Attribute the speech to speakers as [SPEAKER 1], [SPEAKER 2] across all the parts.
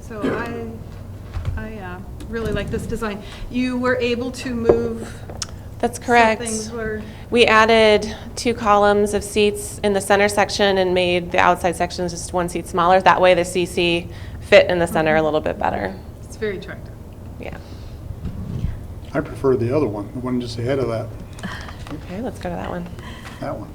[SPEAKER 1] So I, I uh, really like this design. You were able to move
[SPEAKER 2] That's
[SPEAKER 1] some
[SPEAKER 2] correct.
[SPEAKER 1] things were-
[SPEAKER 2] We added two columns of seats in the center section and made the outside sections just one seat smaller. That way the CC fit in the center a little bit better.
[SPEAKER 1] it's very attractive.
[SPEAKER 2] Yeah.
[SPEAKER 3] I prefer the other one, the one just ahead of that,
[SPEAKER 2] Okay, let's go to that one
[SPEAKER 3] that one.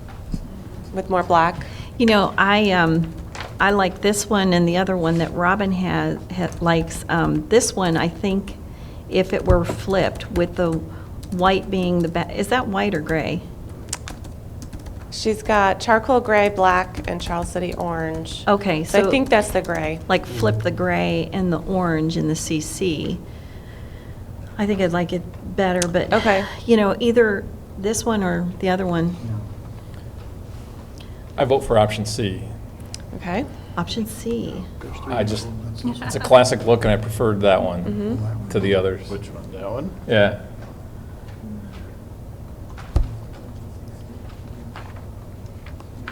[SPEAKER 2] with more black.
[SPEAKER 4] You know, I, um, I like this one and the other one that Robin has, likes. Um, this one, I think, if it were flipped with the white being the ba, is that white or gray?
[SPEAKER 2] She's got charcoal gray, black, and Charles City orange.
[SPEAKER 4] Okay,
[SPEAKER 2] So I
[SPEAKER 4] so-
[SPEAKER 2] think that's the gray.
[SPEAKER 4] Like flip the gray and the orange in the CC. I think I'd like it better, but.
[SPEAKER 2] Okay.
[SPEAKER 4] You know, either this one or the other one,
[SPEAKER 5] I vote for option C.
[SPEAKER 2] Okay.
[SPEAKER 4] option C.
[SPEAKER 5] I just, it's a classic look, and I preferred that
[SPEAKER 3] Mm-hmm.
[SPEAKER 2] Hmm?
[SPEAKER 5] one to the others.
[SPEAKER 6] Which one, that one?
[SPEAKER 5] Yeah.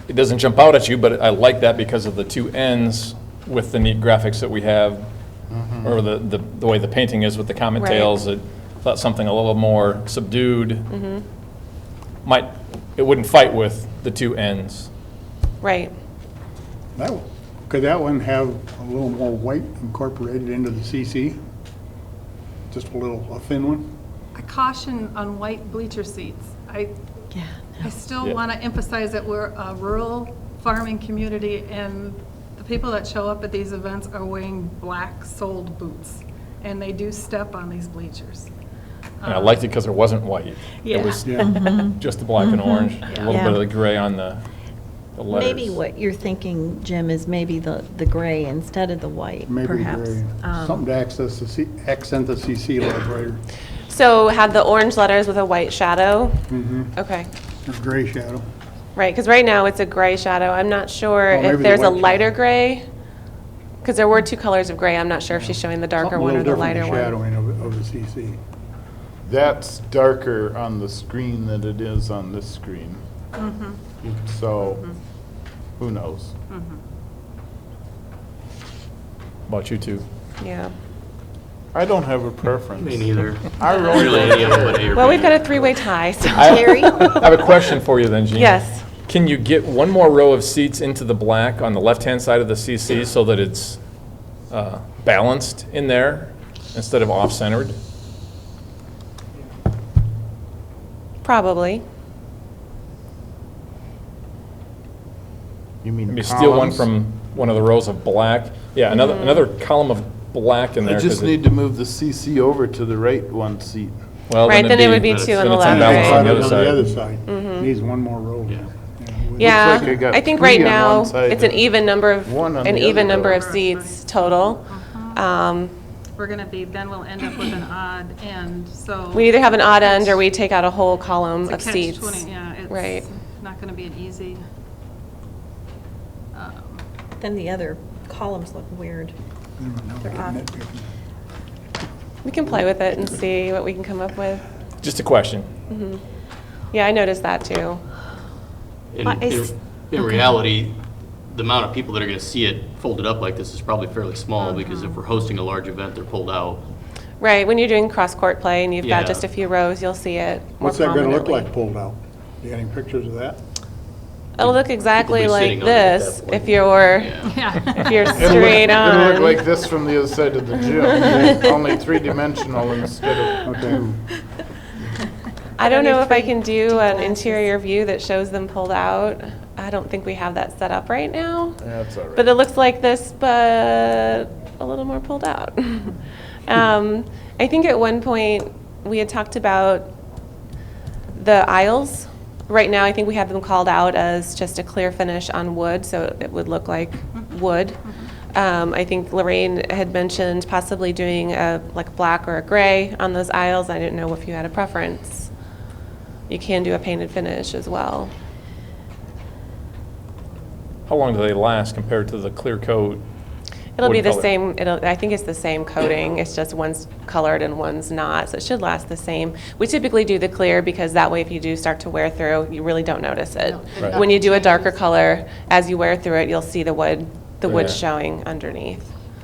[SPEAKER 5] It doesn't jump out at you, but I like that because of the two ends with the neat graphics that we have, or the, the the way the painting is with the comet
[SPEAKER 2] Right.
[SPEAKER 5] tails. I thought something a little more subdued might, it wouldn't fight with the two ends.
[SPEAKER 2] Right.
[SPEAKER 3] That one, could that one have a little more white incorporated into the CC? Just a little, a thin one?
[SPEAKER 1] A caution on white bleacher seats. I,
[SPEAKER 4] Yeah.
[SPEAKER 1] I still
[SPEAKER 5] Yeah.
[SPEAKER 1] want to emphasize that we're a rural farming community, and the people that show up at these events are wearing black-soled boots, and they do step on these bleachers. Um,
[SPEAKER 5] And I
[SPEAKER 1] Uh-huh.
[SPEAKER 5] liked it because it wasn't white.
[SPEAKER 1] Yeah.
[SPEAKER 5] It was
[SPEAKER 3] Yeah,
[SPEAKER 5] just the black
[SPEAKER 2] Mm-hmm.
[SPEAKER 5] and orange, a little
[SPEAKER 4] Yeah.
[SPEAKER 5] bit of the gray on the the letters.
[SPEAKER 4] Maybe what you're thinking, Jim, is maybe the, the gray instead of the white,
[SPEAKER 3] maybe
[SPEAKER 4] perhaps.
[SPEAKER 3] gray.
[SPEAKER 4] Um,
[SPEAKER 3] Something to access the, C- accent the CC a little greater,
[SPEAKER 2] So had the orange letters with a white shadow? Okay.
[SPEAKER 3] Mm-hmm. or gray shadow.
[SPEAKER 2] Right, because right now it's a gray shadow. I'm not sure
[SPEAKER 3] Well, maybe
[SPEAKER 2] if
[SPEAKER 3] the
[SPEAKER 2] there's a
[SPEAKER 3] white shadow.
[SPEAKER 2] lighter gray, because there were two colors of gray. I'm not sure if she's showing the darker
[SPEAKER 3] Something a
[SPEAKER 2] one or
[SPEAKER 3] little
[SPEAKER 2] the
[SPEAKER 3] different
[SPEAKER 2] lighter one.
[SPEAKER 3] Shadowing of, of the CC.
[SPEAKER 6] That's darker on the screen than it is on this screen. So, who knows?
[SPEAKER 5] About you two.
[SPEAKER 2] Yeah.
[SPEAKER 6] I don't have a preference.
[SPEAKER 7] Me neither.
[SPEAKER 6] I
[SPEAKER 7] Really, any
[SPEAKER 6] really
[SPEAKER 7] of them would A or
[SPEAKER 2] Well,
[SPEAKER 7] B.
[SPEAKER 2] we've got a three-way tie, so.
[SPEAKER 5] I- I have a question for you then, Jean.
[SPEAKER 2] Yes.
[SPEAKER 5] Can you get one more row of seats into the black on the left-hand side of the CC so that it's uh, balanced in there instead of off-centered?
[SPEAKER 2] Probably.
[SPEAKER 6] You mean
[SPEAKER 5] Maybe steal one
[SPEAKER 6] columns?
[SPEAKER 5] from one of the rows of black. Yeah, another,
[SPEAKER 2] Mm-hmm.
[SPEAKER 5] another column of black in there.
[SPEAKER 6] I
[SPEAKER 5] 'cause
[SPEAKER 6] just
[SPEAKER 5] it-
[SPEAKER 6] need to move the CC over to the right one seat.
[SPEAKER 5] well,
[SPEAKER 2] Right, then it
[SPEAKER 5] it'd
[SPEAKER 2] would be two on the
[SPEAKER 5] then it's
[SPEAKER 2] left,
[SPEAKER 5] unbalanced
[SPEAKER 2] right?
[SPEAKER 5] on the other
[SPEAKER 3] On the other
[SPEAKER 5] side.
[SPEAKER 3] side, needs one more row.
[SPEAKER 7] Yeah.
[SPEAKER 2] Mm-hmm. Yeah.
[SPEAKER 6] like I got
[SPEAKER 2] I think
[SPEAKER 6] three
[SPEAKER 2] right
[SPEAKER 6] on
[SPEAKER 2] now,
[SPEAKER 6] one side
[SPEAKER 2] it's an
[SPEAKER 6] and
[SPEAKER 2] even number of,
[SPEAKER 6] one on
[SPEAKER 2] an
[SPEAKER 6] the
[SPEAKER 2] even
[SPEAKER 6] other
[SPEAKER 2] number of
[SPEAKER 1] row.
[SPEAKER 2] seats total. Um,
[SPEAKER 1] Uh-huh. We're going to be, then we'll end up with an odd end, so.
[SPEAKER 2] We either have an odd end or we take out a whole column of
[SPEAKER 1] It's a
[SPEAKER 2] seats.
[SPEAKER 1] catch-20, yeah.
[SPEAKER 2] Right.
[SPEAKER 1] It's not going to be an easy. um,
[SPEAKER 4] Then the other columns look weird. They're odd.
[SPEAKER 3] Nitpicking.
[SPEAKER 2] We can play with it and see what we can come up with.
[SPEAKER 5] Just a question.
[SPEAKER 2] Yeah, I noticed that too.
[SPEAKER 7] In,
[SPEAKER 4] But
[SPEAKER 7] in-
[SPEAKER 4] it's-
[SPEAKER 7] in reality, the amount of people that are gonna see it folded up like this is probably fairly small, because if we're hosting a large event, they're pulled out.
[SPEAKER 2] Right, when you're doing cross-court play and you've got
[SPEAKER 7] Yeah.
[SPEAKER 2] just a few rows, you'll see it more
[SPEAKER 3] What's that gonna look
[SPEAKER 2] prominently.
[SPEAKER 3] like pulled out? You got any pictures of that?
[SPEAKER 2] It'll look exactly
[SPEAKER 7] People be
[SPEAKER 2] like
[SPEAKER 7] sitting on it at
[SPEAKER 2] this
[SPEAKER 7] that point.
[SPEAKER 2] if you're,
[SPEAKER 7] Yeah.
[SPEAKER 1] Yeah.
[SPEAKER 2] if you're
[SPEAKER 6] It'll look-
[SPEAKER 2] straight
[SPEAKER 6] It'll look like
[SPEAKER 2] on.
[SPEAKER 6] this from the other side of the gym, only three-dimensional instead of
[SPEAKER 3] Okay.
[SPEAKER 2] I don't know if I can do an interior view that shows them pulled out. I don't think we have that set up right now.
[SPEAKER 6] That's all right.
[SPEAKER 2] But it looks like this, but a little more pulled out. um, I think at one point we had talked about the aisles. Right now, I think we have them called out as just a clear finish on wood, so it would look like wood. Um, I think Lorraine had mentioned possibly doing a like black or a gray on those aisles. I didn't know if you had a preference. You can do a painted finish as well.
[SPEAKER 5] How long do they last compared to the clear coat?
[SPEAKER 2] It'll be
[SPEAKER 5] wood
[SPEAKER 2] the
[SPEAKER 5] color?
[SPEAKER 2] same, it'll, I think it's the same coating, it's just one's colored and one's not, so it should last the same. We typically do the clear because that way if you do start to wear through, you really don't notice it.
[SPEAKER 5] Right.
[SPEAKER 2] When you do a darker color, as you wear through it, you'll see the wood, the wood
[SPEAKER 5] Yeah.
[SPEAKER 2] showing underneath.